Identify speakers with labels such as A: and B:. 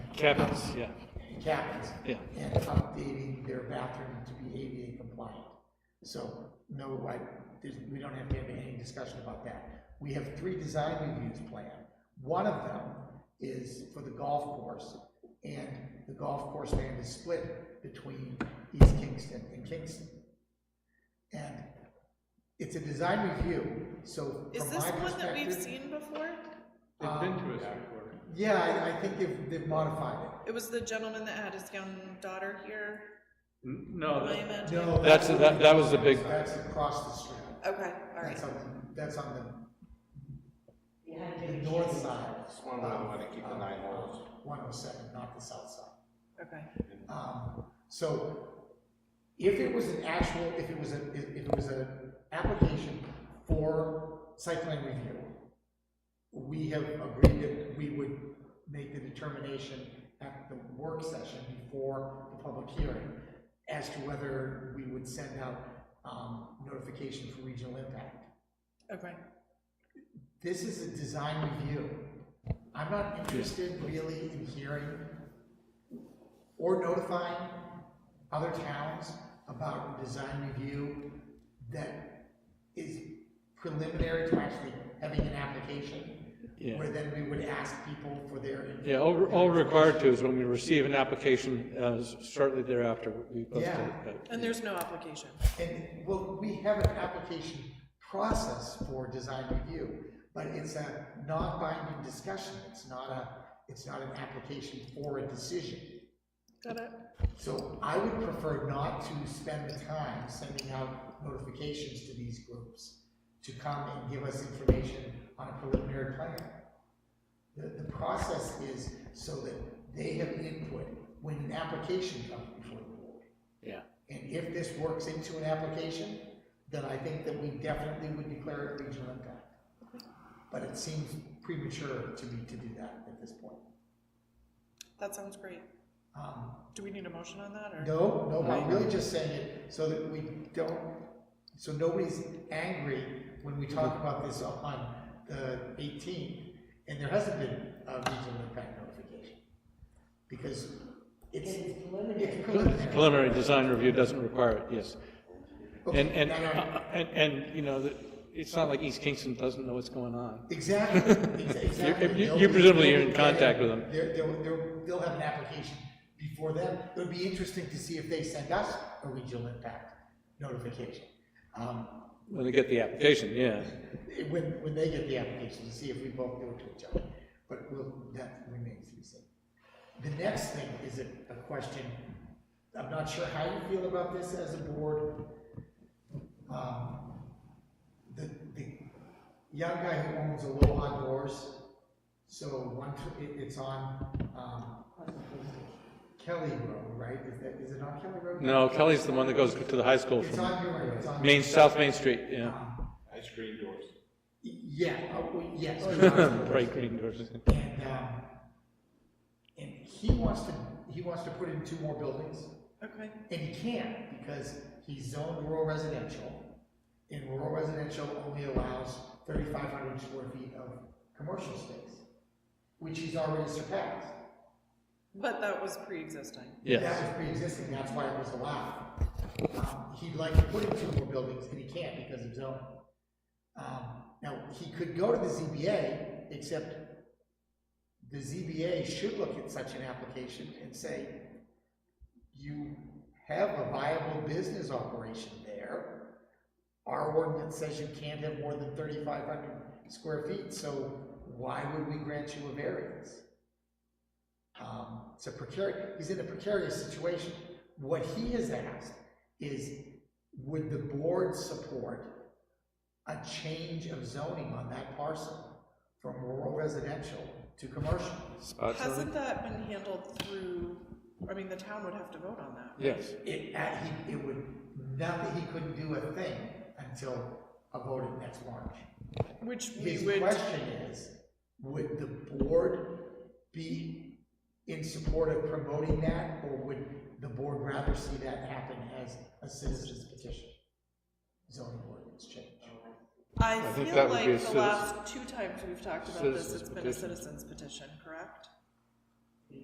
A: Cabins, yeah,
B: cabins.
A: Yeah.
B: And updating their bathroom to be ADA compliant. So, no, I, there's, we don't have to have any discussion about that. We have three design reviews planned. One of them is for the golf course, and the golf course land is split between East Kingston and Kingston. And it's a design review, so
C: Is
B: from
C: this
B: my
C: one that we've
B: perspective- um,
C: seen before?
D: They've been to us before.
B: Yeah, I, I think they've, they've modified it.
C: It was the gentleman that had his young daughter here,
D: N- No,
C: am I
D: that-
C: imagining?
B: Oh, No,
A: That's- that- that was the big-
B: That's across the street.
C: Okay, all right.
B: That's on the, that's on the, the north side.
E: That's one where I want to keep the nine holes.
B: One oh seven, not the south side.
C: Okay.
B: Um, so if it was an actual, if it was a, if if it was an application for site plan review, we have agreed that we would make the determination at the work session before the public hearing as to whether we would send out, um, notification for regional impact.
C: Okay.
B: this is a design review. I'm not interested really in hearing or notifying other towns about a design review that is preliminary to actually having an application.
A: Yeah.
B: Where then we would ask people for their.
A: yeah, all, we're- all we're required to is when we receive an application, uh, shortly thereafter, we post it. Uh,
B: Yeah.
A: but-
C: And there's no application.
B: And, well, we have an application process for design review, but it's a non-binding discussion, it's not a, it's not an application for a decision.
C: Got it?
B: So I would prefer not to spend the time sending out notifications to these groups to come and give us information on a preliminary plan. The, the process is so that they have input when an application comes before the board.
A: Yeah.
B: And if this works into an application, then I think that we definitely would declare it regional impact. But it seems premature to me to do that at this point.
C: That sounds great.
B: Um,
C: Do we need a motion on that or?
B: No, no, I'm really just saying it so that we don't, so nobody's angry when we talk
A: Mm-hmm.
B: about this on the eighteenth, and there hasn't been a regional impact notification. Because it's, it's preliminary.
A: Preliminary design review doesn't require it, yes.
B: Okay,
A: And, and,
B: now, now,
A: uh, and, and, you know, the- it's not like East Kingston doesn't know what's going on.
B: Exactly, ex- exactly.
A: you- you
B: They'll be-
A: presumably
B: they'll
A: you're in
B: be-
A: contact with them.
B: They're, they'll, they'll, they'll have an application before them. It would be interesting to see if they send us a regional impact notification. Um,
A: When they get the application, yeah.
B: when, when they get the application, to see if we both do it to each other, but we'll, that remains to be seen. The next thing is a, a question, I'm not sure how you feel about this as a board. Um, The, the young guy who owns Aloha Doors, so one, tw- it, it's on, um, Kelly Road, right? Is that, is it on Kelly Road?
A: No, Kelly's the one that goes to the high school
B: It's
A: from
B: on your, it's on.
A: Main, South Main Street, yeah.
E: Ice cream doors.
B: Yeah, oh, well, yes.
A: Bright green doors.
B: And, um, and he wants to, he wants to put in two more buildings,
C: Okay,
B: and he can't because he's zoned rural residential. And rural residential only allows thirty-five hundred square feet of commercial space, which he's already surpassed.
C: but that was pre-existing.
A: Yes,
B: That was pre-existing, that's why it was allowed. Um, He'd like to put in two more buildings, and he can't because of zoning. Um, Now, he could go to the ZBA, except the ZBA should look at such an application and say, you have a viable business operation there. Our ordinance says you can't have more than thirty-five hundred square feet, so why would we grant you a variance? Um, it's a precarious, he's in a precarious situation. What he has asked is, would the board support a change of zoning on that parcel from rural residential to commercial? Uh,
C: Hasn't that been handled through, I mean, the town would have to vote on that.
A: yes.
B: It, uh, he, it would, nothing, he couldn't do a thing until a vote in next March.
C: Which we
B: His
C: would,
B: question is, would the board be in support of promoting that, or would the board rather see that happen as a citizen's petition? Zoning ordinance change.
C: I
D: think
C: feel
D: that would be a
C: like the
D: citizen-
C: last two times we've talked about this,
D: citizen's
C: it's been a
D: petition.
C: citizen's petition, correct?